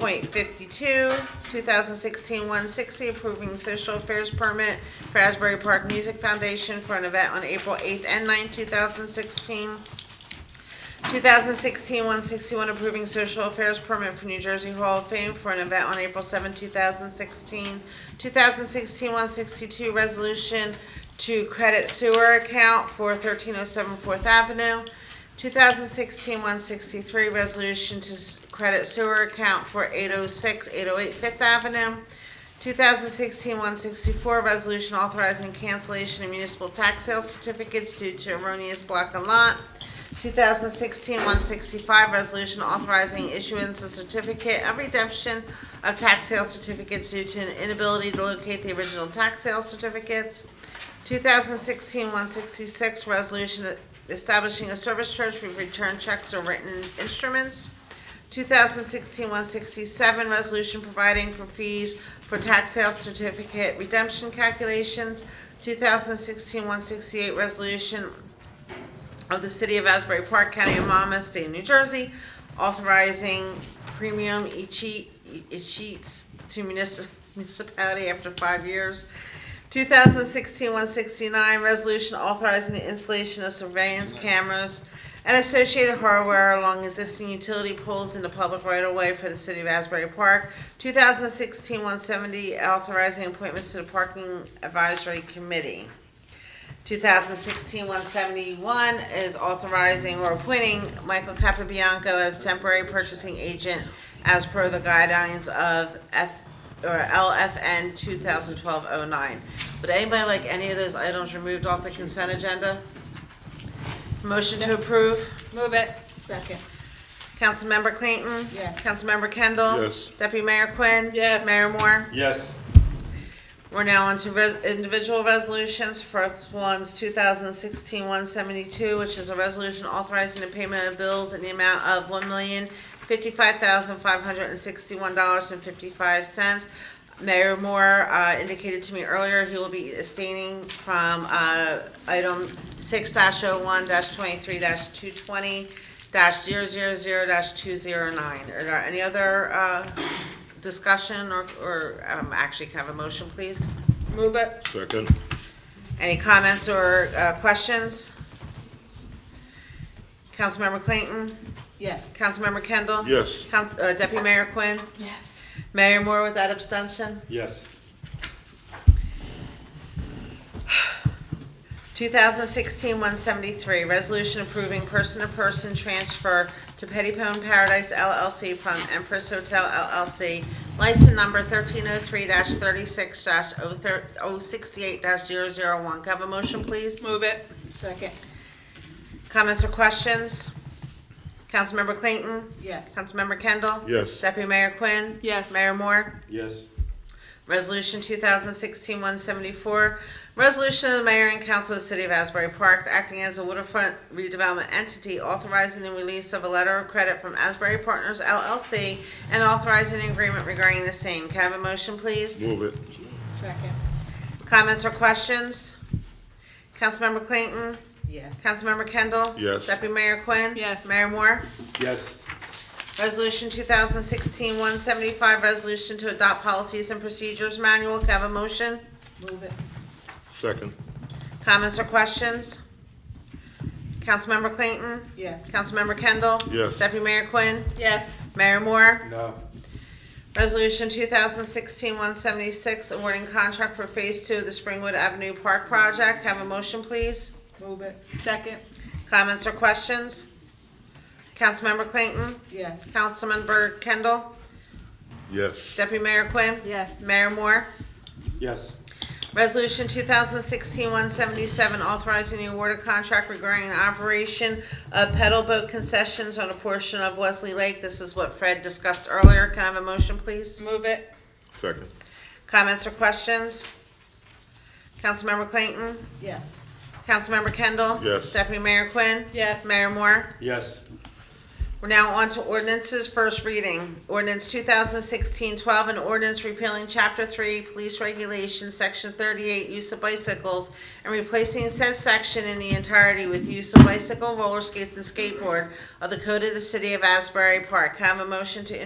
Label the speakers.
Speaker 1: 124.52, 2016-160, approving social affairs permit for Asbury Park Music Foundation for an event on April 8th and 9th, 2016. 2016-161, approving social affairs permit for New Jersey Hall of Fame for an event on April 7, 2016. 2016-162, resolution to credit sewer account for 1307 Fourth Avenue. 2016-163, resolution to s- credit sewer account for 806, 808 Fifth Avenue. 2016-164, resolution authorizing cancellation of municipal tax sale certificates due to erroneous block and lot. 2016-165, resolution authorizing issuance of certificate of redemption of tax sale certificates due to an inability to locate the original tax sale certificates. 2016-166, resolution establishing a service charge with return checks or written instruments. 2016-167, resolution providing for fees for tax sale certificate redemption calculations. 2016-168, resolution of the City of Asbury Park, County of Monmouth, State of New Jersey, authorizing premium eche- escheats to munis- municipality after five years. 2016-169, resolution authorizing the installation of surveillance cameras and associated hardware along existing utility poles in the public right-of-way for the City of Asbury Park. 2016-170, authorizing appointments to the Parking Advisory Committee. 2016-171 is authorizing or appointing Michael Capabianco as temporary purchasing agent as per the guidelines of F, or LFN 2012-09. Would anybody like any of those items removed off the consent agenda? Motion to approve?
Speaker 2: Move it.
Speaker 3: Second.
Speaker 1: Councilmember Clayton?
Speaker 3: Yes.
Speaker 1: Councilmember Kendall?
Speaker 4: Yes.
Speaker 1: Deputy Mayor Quinn?
Speaker 2: Yes.
Speaker 1: Mayor Moore?
Speaker 5: Yes.
Speaker 1: We're now on to res- individual resolutions. First one's 2016-172, which is a resolution authorizing the payment of bills in the amount of $1,055,561.55. Mayor Moore uh, indicated to me earlier he will be abstaining from uh, item oh 6-01-23-220-000-209. Are there any other uh, discussion or- or, um, actually, can I have a motion, please?
Speaker 2: Move it.
Speaker 4: Second,
Speaker 1: Any comments or uh, questions? Councilmember Clayton?
Speaker 3: Yes.
Speaker 1: Councilmember Kendall?
Speaker 4: yes.
Speaker 1: Council- uh, Deputy Mayor Quinn?
Speaker 3: Yes.
Speaker 1: Mayor Moore with that abstention?
Speaker 5: Yes.
Speaker 1: 2016-173, resolution approving person-to-person transfer to Pettipone Paradise LLC from Empress Hotel LLC, license number 1303-36-068-001. Can I have a motion, please?
Speaker 2: Move it.
Speaker 3: Second.
Speaker 1: Comments or questions? Councilmember Clayton?
Speaker 3: Yes.
Speaker 1: Councilmember Kendall?
Speaker 4: Yes.
Speaker 1: Deputy Mayor Quinn?
Speaker 2: Yes.
Speaker 1: Mayor Moore?
Speaker 5: Yes.
Speaker 1: Resolution 2016-174, resolution of the mayor and council of the city of Asbury Park acting as a waterfront redevelopment entity authorizing the release of a letter of credit from Asbury Partners LLC and authorizing an agreement regarding the same. Can I have a motion, please?
Speaker 4: Move it,
Speaker 3: Second.
Speaker 1: Comments or questions? Councilmember Clayton?
Speaker 3: Yes.
Speaker 1: Councilmember Kendall?
Speaker 4: Yes.
Speaker 1: Deputy Mayor Quinn?
Speaker 2: Yes.
Speaker 1: Mayor Moore?
Speaker 5: Yes.
Speaker 1: Resolution 2016-175, resolution to adopt policies and procedures manual. Can I have a motion?
Speaker 3: Move it.
Speaker 4: second,
Speaker 1: Comments or questions? Councilmember Clayton?
Speaker 3: Yes.
Speaker 1: Councilmember Kendall?
Speaker 4: Yes.
Speaker 1: Deputy Mayor Quinn?
Speaker 2: Yes.
Speaker 1: Mayor Moore?
Speaker 5: No.
Speaker 1: Resolution 2016-176, awarding contract for Phase 2 of the Springwood Avenue Park Project. Have a motion, please?
Speaker 3: Move it.
Speaker 2: Second.
Speaker 1: Comments or questions? Councilmember Clayton?
Speaker 3: Yes.
Speaker 1: Councilmember Kendall?
Speaker 4: yes.
Speaker 1: Deputy Mayor Quinn?
Speaker 2: Yes.
Speaker 1: Mayor Moore?
Speaker 5: Yes.
Speaker 1: Resolution 2016-177, authorizing the award of contract regarding the operation of pedal boat concessions on a portion of Wesley Lake. This is what Fred discussed earlier. Can I have a motion, please?
Speaker 2: Move it.
Speaker 4: Second,
Speaker 1: Comments or questions? Councilmember Clayton?
Speaker 3: Yes.
Speaker 1: Councilmember Kendall?
Speaker 4: Yes.
Speaker 1: Deputy Mayor Quinn?
Speaker 2: Yes.
Speaker 1: Mayor Moore?
Speaker 5: Yes.
Speaker 1: We're now on to ordinances, first reading. Ordinance 2016-12, an ordinance repealing Chapter 3 Police Regulations, Section 38, Use of Bicycles, and replacing said section in the entirety with use of bicycle, roller skates, and skateboard of the Code of the City of Asbury Park. Can I Have a motion to